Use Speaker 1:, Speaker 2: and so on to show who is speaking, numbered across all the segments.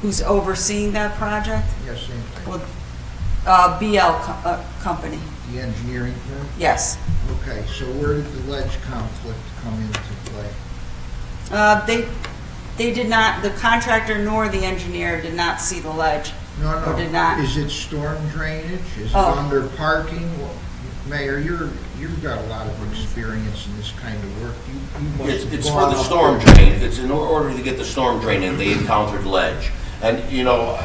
Speaker 1: who's overseeing that project?
Speaker 2: Yes, same thing.
Speaker 1: Well, uh, BL co- uh, Company,
Speaker 2: The engineering firm?
Speaker 1: yes.
Speaker 2: Okay, so where did the ledge conflict come into play?
Speaker 1: Uh, They, they did not, the contractor nor the engineer did not see the ledge.
Speaker 2: No, no.
Speaker 1: Or did not.
Speaker 2: Is it storm drainage? Is it
Speaker 1: Oh.
Speaker 2: under parking? Well, Mayor, you're, you've got a lot of experience in this kind of work. You you must
Speaker 3: It's,
Speaker 2: have
Speaker 3: it's for
Speaker 2: gone
Speaker 3: the
Speaker 2: up
Speaker 3: storm
Speaker 2: there.
Speaker 3: drain, it's in order to get the storm drain in, they encountered ledge. And, you know,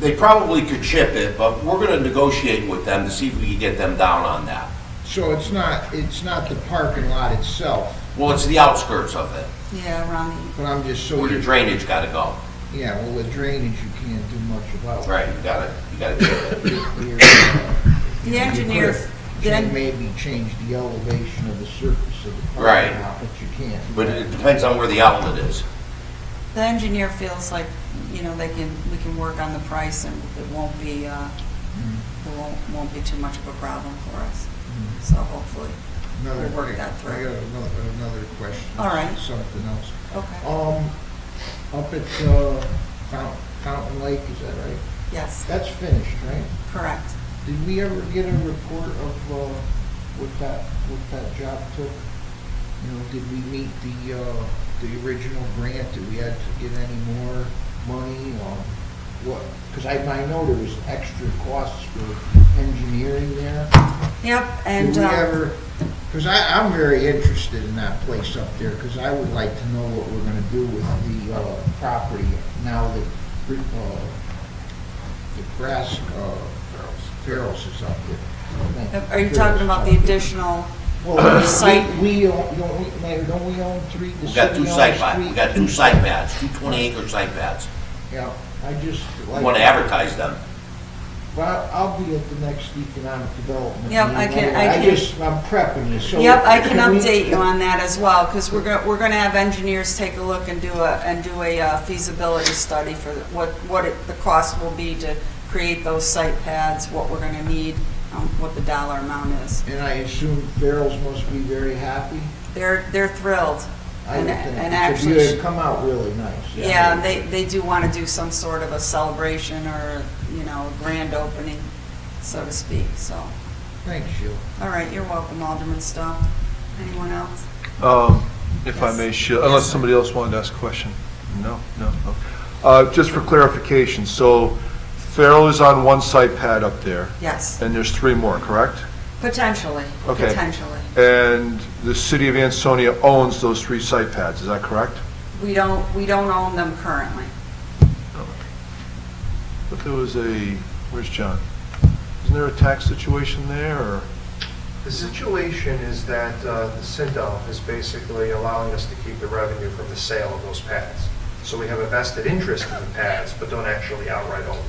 Speaker 3: they probably could chip it, but we're gonna negotiate with them to see if we can get them down on that.
Speaker 2: So it's not, it's not the parking lot itself,
Speaker 3: Well, it's the outskirts of it,
Speaker 1: Yeah, around
Speaker 2: but I'm just so,
Speaker 3: where the
Speaker 2: you-
Speaker 3: drainage gotta go.
Speaker 2: yeah, well, the drainage you can't do much about.
Speaker 3: Right, you gotta, you gotta chip it.
Speaker 2: You're, uh,
Speaker 1: the, the engineer,
Speaker 2: You
Speaker 1: then,
Speaker 2: could maybe change the elevation of the surface of the
Speaker 3: Right.
Speaker 2: parking lot, but you can't.
Speaker 3: But it depends on where the outlet is.
Speaker 1: the engineer feels like, you know, they can, we can work on the price and it won't be, uh, it won't, won't be too much of a problem for us. So hopefully,
Speaker 2: Another-
Speaker 1: We'll work that through.
Speaker 2: I got another, another question.
Speaker 1: All right.
Speaker 2: Something else.
Speaker 1: okay,
Speaker 2: Um, up at, uh, Fountain, Fountain Lake, is that right?
Speaker 1: yes,
Speaker 2: That's finished, right?
Speaker 1: correct.
Speaker 2: Did we ever get a report of, uh, what that, what that job took? You know, did we meet the, uh, the original grant? Did we have to get any more money or what? Because I, I know there was extra costs for engineering there.
Speaker 1: Yep, and,
Speaker 2: Did we
Speaker 1: uh,
Speaker 2: ever, because I, I'm very interested in that place up there, because I would like to know what we're gonna do with the, uh, property now that, uh, the grass, uh, Farrell's is up there. Thank
Speaker 1: Uh, are you talking about the additional,
Speaker 2: Well, we-
Speaker 1: site?
Speaker 2: We, own- don't we, Mayor, don't we own three? the
Speaker 3: We got
Speaker 2: city
Speaker 3: two
Speaker 2: owns
Speaker 3: site pads,
Speaker 2: three?
Speaker 3: we got two site pads, two 20-acre site pads.
Speaker 2: Yeah, I just
Speaker 3: We
Speaker 2: like.
Speaker 3: wanna advertise them.
Speaker 2: Well, I'll be at the next economic development.
Speaker 1: Yep,
Speaker 2: meeting
Speaker 1: I can- I
Speaker 2: anyway.
Speaker 1: can-
Speaker 2: just, I'm prepping you, so.
Speaker 1: Yep, I can
Speaker 2: we-
Speaker 1: update you on that as well, because we're going, we're going to have engineers take a look and do a, and do a uh, feasibility study for what, what it- the cost will be to create those site pads, what we're going to need, um, what the dollar amount is.
Speaker 2: And I assume Farrell's must be very happy.
Speaker 1: They're, they're thrilled.
Speaker 2: I
Speaker 1: And-
Speaker 2: would think,
Speaker 1: and
Speaker 2: because you
Speaker 1: actually-
Speaker 2: had come out really nice.
Speaker 1: Yeah, and they, they do want to do some sort of a celebration or, you know, a grand opening, so to speak, so.
Speaker 2: Thanks, Sheila.
Speaker 1: All right, you're welcome, Alderman Stowe. Anyone else?
Speaker 4: Um, If I may,
Speaker 1: Yes.
Speaker 4: Sheila, unless somebody else wanted to ask a question? No, no, no. Uh, Just for clarification, so Farrell is on one site pad up there,
Speaker 1: Yes,
Speaker 4: and there's three more, correct?
Speaker 1: potentially,
Speaker 4: Okay.
Speaker 1: potentially.
Speaker 4: And the city of Ansonia owns those three site pads, is that correct?
Speaker 1: We don't, we don't own them currently.
Speaker 4: But there was a, where's John? Isn't there a tax situation there, or?
Speaker 5: The situation is that uh, the CINDAL is basically allowing us to keep the revenue from the sale of those pads. So we have a vested interest in the pads, but don't actually outright own them.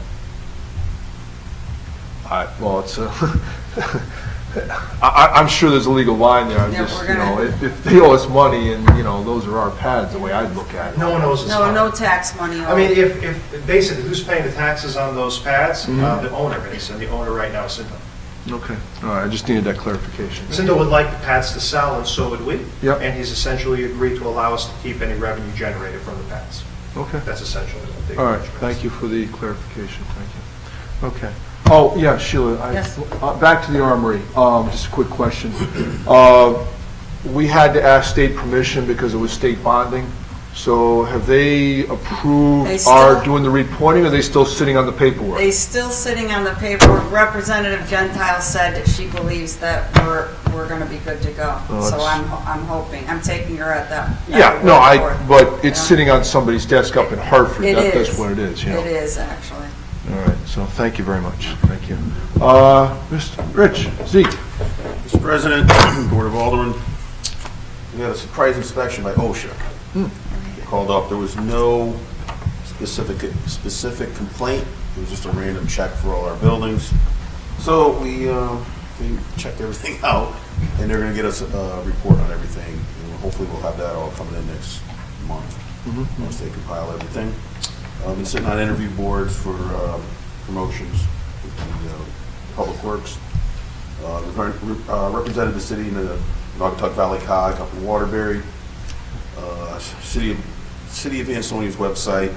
Speaker 4: I, well, it's a, I, I- I'm sure there's a legal line there, I'm
Speaker 1: Yeah,
Speaker 4: just,
Speaker 1: we're
Speaker 4: you know,
Speaker 1: gonna-
Speaker 4: if, if they owe us money and, you know, those are our pads, the way I'd look at it.
Speaker 5: No one owes us
Speaker 1: No,
Speaker 5: money.
Speaker 1: no tax money.
Speaker 5: I mean, if, if, basically, who's paying the taxes on those pads?
Speaker 4: Mm-hmm.
Speaker 5: Uh, The owner is, and the owner right now is CINDAL.
Speaker 4: Okay, all right, I just needed that clarification.
Speaker 5: Cinto would like the pads to sell, and so would we.
Speaker 4: Yep.
Speaker 5: And he's essentially agreed to allow us to keep any revenue generated from the pads.
Speaker 4: Okay,
Speaker 5: That's essentially what the.
Speaker 4: all right, thank you for the clarification, thank you. Okay, oh, yeah, Sheila, I,
Speaker 1: Yes.
Speaker 4: uh, back to the armory, um, just a quick question. Uh, we had to ask state permission because it was state bonding, so have they
Speaker 1: They
Speaker 4: approved
Speaker 1: still-
Speaker 4: our doing the repointing, or are they still sitting on the paperwork?
Speaker 1: They still sitting on the paperwork. Representative Gentile said that she believes that we're, we're gonna be good to go.
Speaker 4: Oh,
Speaker 1: So
Speaker 4: it's-
Speaker 1: I'm, I'm hoping, I'm taking her at that. at
Speaker 4: Yeah,
Speaker 1: her
Speaker 4: no, I,
Speaker 1: word for it,
Speaker 4: but
Speaker 1: you
Speaker 4: it's
Speaker 1: know?
Speaker 4: sitting on somebody's desk up in Hartford.
Speaker 1: It
Speaker 4: That- That's
Speaker 1: is.
Speaker 4: what it is, yeah.
Speaker 1: It is, actually.
Speaker 4: All right, so thank you very much, thank you. Uh, Mr. Rich, Zeke,
Speaker 6: Mr. President, Board of Aldermen, we had a surprise inspection by OSHA. Called up, there was no specific, specific complaint, it was just a random check for all our buildings. So we, uh, we checked everything out, and they're gonna get us a report on everything, and hopefully we'll have that all coming in next month, once they compile everything. I've been sitting on interview boards for uh, promotions with the uh, Public Works. Uh, represent- uh, Represented the city in the Naugatuck Valley COG up in Waterbury. Uh, City, of City of Ansonia's website,